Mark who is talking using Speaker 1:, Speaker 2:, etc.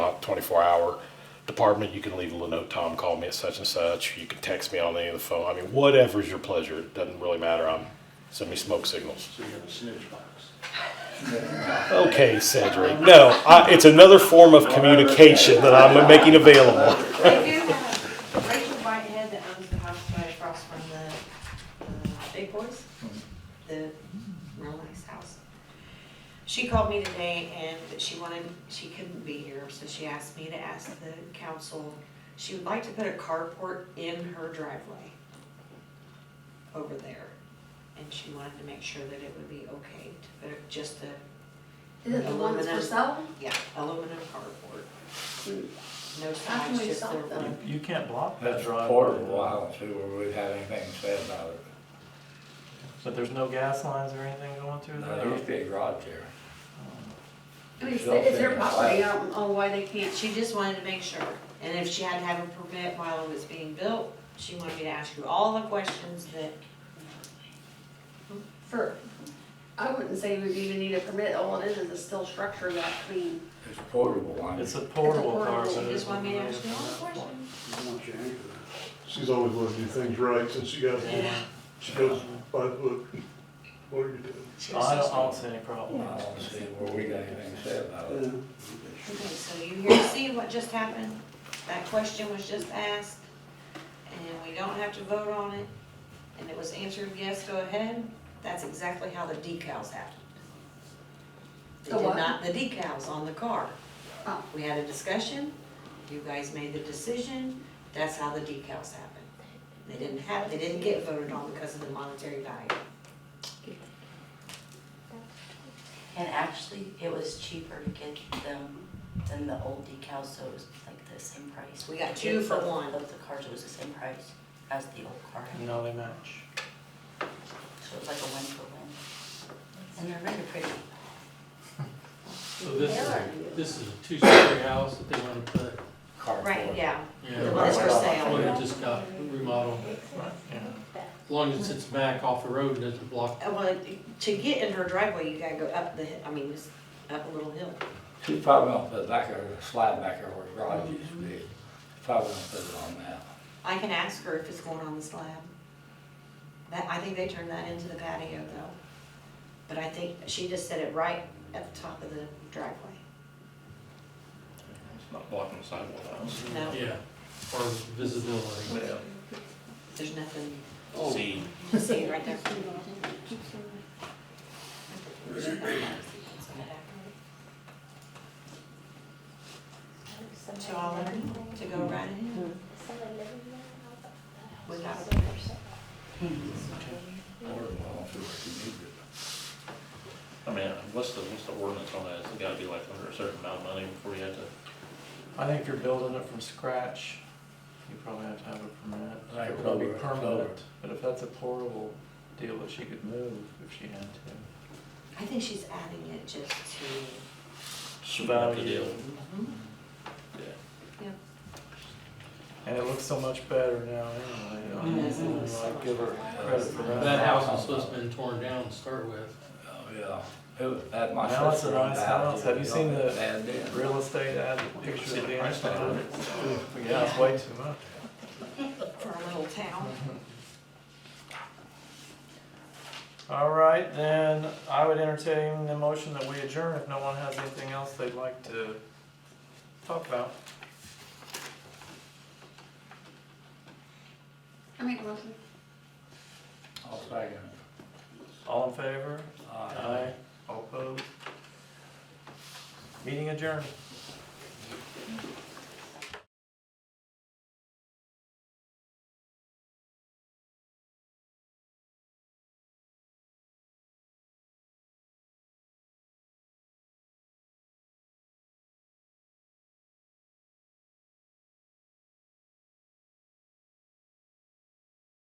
Speaker 1: twenty-four hour department, you can leave a little note, Tom called me at such and such, you can text me on any of the phone, I mean, whatever's your pleasure, it doesn't really matter, I'm, send me smoke signals.
Speaker 2: So you have a snitch box.
Speaker 1: Okay, Cedric, no, I, it's another form of communication that I'm making available.
Speaker 3: They do have Rachel Whitehead that owns the house right across from the, uh, Big Boys, the Rolex house. She called me today and that she wanted, she couldn't be here, so she asked me to ask the council, she would like to put a carport in her driveway over there. And she wanted to make sure that it would be okay to put just a,
Speaker 4: Is it the one that's for sale?
Speaker 3: yeah, aluminum carport. No
Speaker 4: How can
Speaker 3: signs,
Speaker 4: we
Speaker 3: just
Speaker 4: stop
Speaker 3: the.
Speaker 4: them?
Speaker 5: You can't block that
Speaker 6: That's
Speaker 5: driveway.
Speaker 6: portable, I don't see where we've had anything said about it.
Speaker 5: But there's no gas lines or anything going through
Speaker 6: Now,
Speaker 5: there?
Speaker 6: There used to be a garage there.
Speaker 4: I mean, it's it's their property, I don't know why they can't,
Speaker 3: She just wanted to make sure, and if she had to have a permit while it was being built, she wanted me to ask you all the questions that,
Speaker 4: for, I wouldn't say we even need a permit, all it is is a steel structure that clean.
Speaker 6: It's portable, I mean.
Speaker 5: It's a portable car.
Speaker 4: portable,
Speaker 5: but
Speaker 3: she
Speaker 5: it
Speaker 3: just wanted me to ask
Speaker 5: isn't
Speaker 3: you all the
Speaker 5: really a-
Speaker 3: questions.
Speaker 2: She's always wanted to do things right since she got home. She goes by the book. What are you doing?
Speaker 3: She
Speaker 5: Oh,
Speaker 3: was
Speaker 5: I
Speaker 3: so
Speaker 5: don't, I
Speaker 3: sweet.
Speaker 5: don't see any
Speaker 6: I
Speaker 5: problem.
Speaker 6: don't see where we got anything said about it.
Speaker 3: Okay, so you here to see what just happened, that question was just asked, and we don't have to vote on it, and it was answered, yes, go ahead, that's exactly how the decals happened. They
Speaker 4: The
Speaker 3: did
Speaker 4: what?
Speaker 3: not, the decals on the car.
Speaker 4: Oh.
Speaker 3: We had a discussion, you guys made the decision, that's how the decals happened. They didn't have, they didn't get voted on because of the monetary value.
Speaker 7: And actually, it was cheaper to get them than the old decals, so it was like the same price.
Speaker 3: We got two for
Speaker 7: Both-
Speaker 3: one.
Speaker 7: Both the cars, it was the same price as the old car,
Speaker 5: No, they match.
Speaker 7: so it was like a one for one. And they're really pretty.
Speaker 8: So this is, this is a two-story house that they want to put,
Speaker 6: Carport.
Speaker 3: Right, yeah,
Speaker 8: yeah,
Speaker 3: that's for
Speaker 8: well,
Speaker 3: sale.
Speaker 8: it just got remodeled. As long as it's back off the road and doesn't block
Speaker 3: Uh, Well, to get in her driveway, you gotta go up the, hi- I mean, it's up a little hill.
Speaker 6: She probably won't put it back there, the slide back there where the garage used to be. Probably won't put it on that.
Speaker 3: I can ask her if it's going on the slab. That, I think they turned that into the patio though. But I think she just said it right at the top of the driveway.
Speaker 9: It's not blocking the sidewalk house.
Speaker 3: No,
Speaker 8: Yeah, or visibility.
Speaker 3: there's nothing,
Speaker 6: Oh.
Speaker 9: See,
Speaker 3: you see it right there. So I'll let her to go right ahead. We got it.
Speaker 6: Portable, I don't see what you need it.
Speaker 9: I mean, what's the, what's the ordinance on that? It's gotta be like under a certain amount of money before you have to,
Speaker 5: I think if you're building it from scratch, you probably have to have a permit.
Speaker 6: Like
Speaker 5: It would be
Speaker 6: over- over.
Speaker 5: permanent, but if that's a portable deal that she could move if she had to.
Speaker 3: I think she's adding it just to,
Speaker 9: sweeten up the
Speaker 5: Value.
Speaker 9: deal. Yeah.
Speaker 5: And it looks so much better now anyway. I mean,
Speaker 3: Mhm.
Speaker 5: I'd give her credit for that.
Speaker 8: That house was supposed to have been torn down to start with.
Speaker 6: Oh, yeah. It was, that my
Speaker 5: Now it's a
Speaker 6: sister owned
Speaker 5: nice
Speaker 6: the
Speaker 5: house. Have you
Speaker 6: It
Speaker 5: seen
Speaker 6: was
Speaker 5: the-
Speaker 6: bad then.
Speaker 5: Real estate ad, picture
Speaker 9: See
Speaker 5: of
Speaker 9: the
Speaker 5: the
Speaker 9: price tag on
Speaker 5: inside.
Speaker 9: it.
Speaker 5: Yeah, it's way too much.
Speaker 3: for our little town.
Speaker 5: All right, then I would entertain the motion that we adjourn if no one has anything else they'd like to talk about.
Speaker 4: I make a motion.
Speaker 6: I'll second it.
Speaker 5: All in favor?
Speaker 6: Aye.
Speaker 5: All opposed? Meeting adjourned.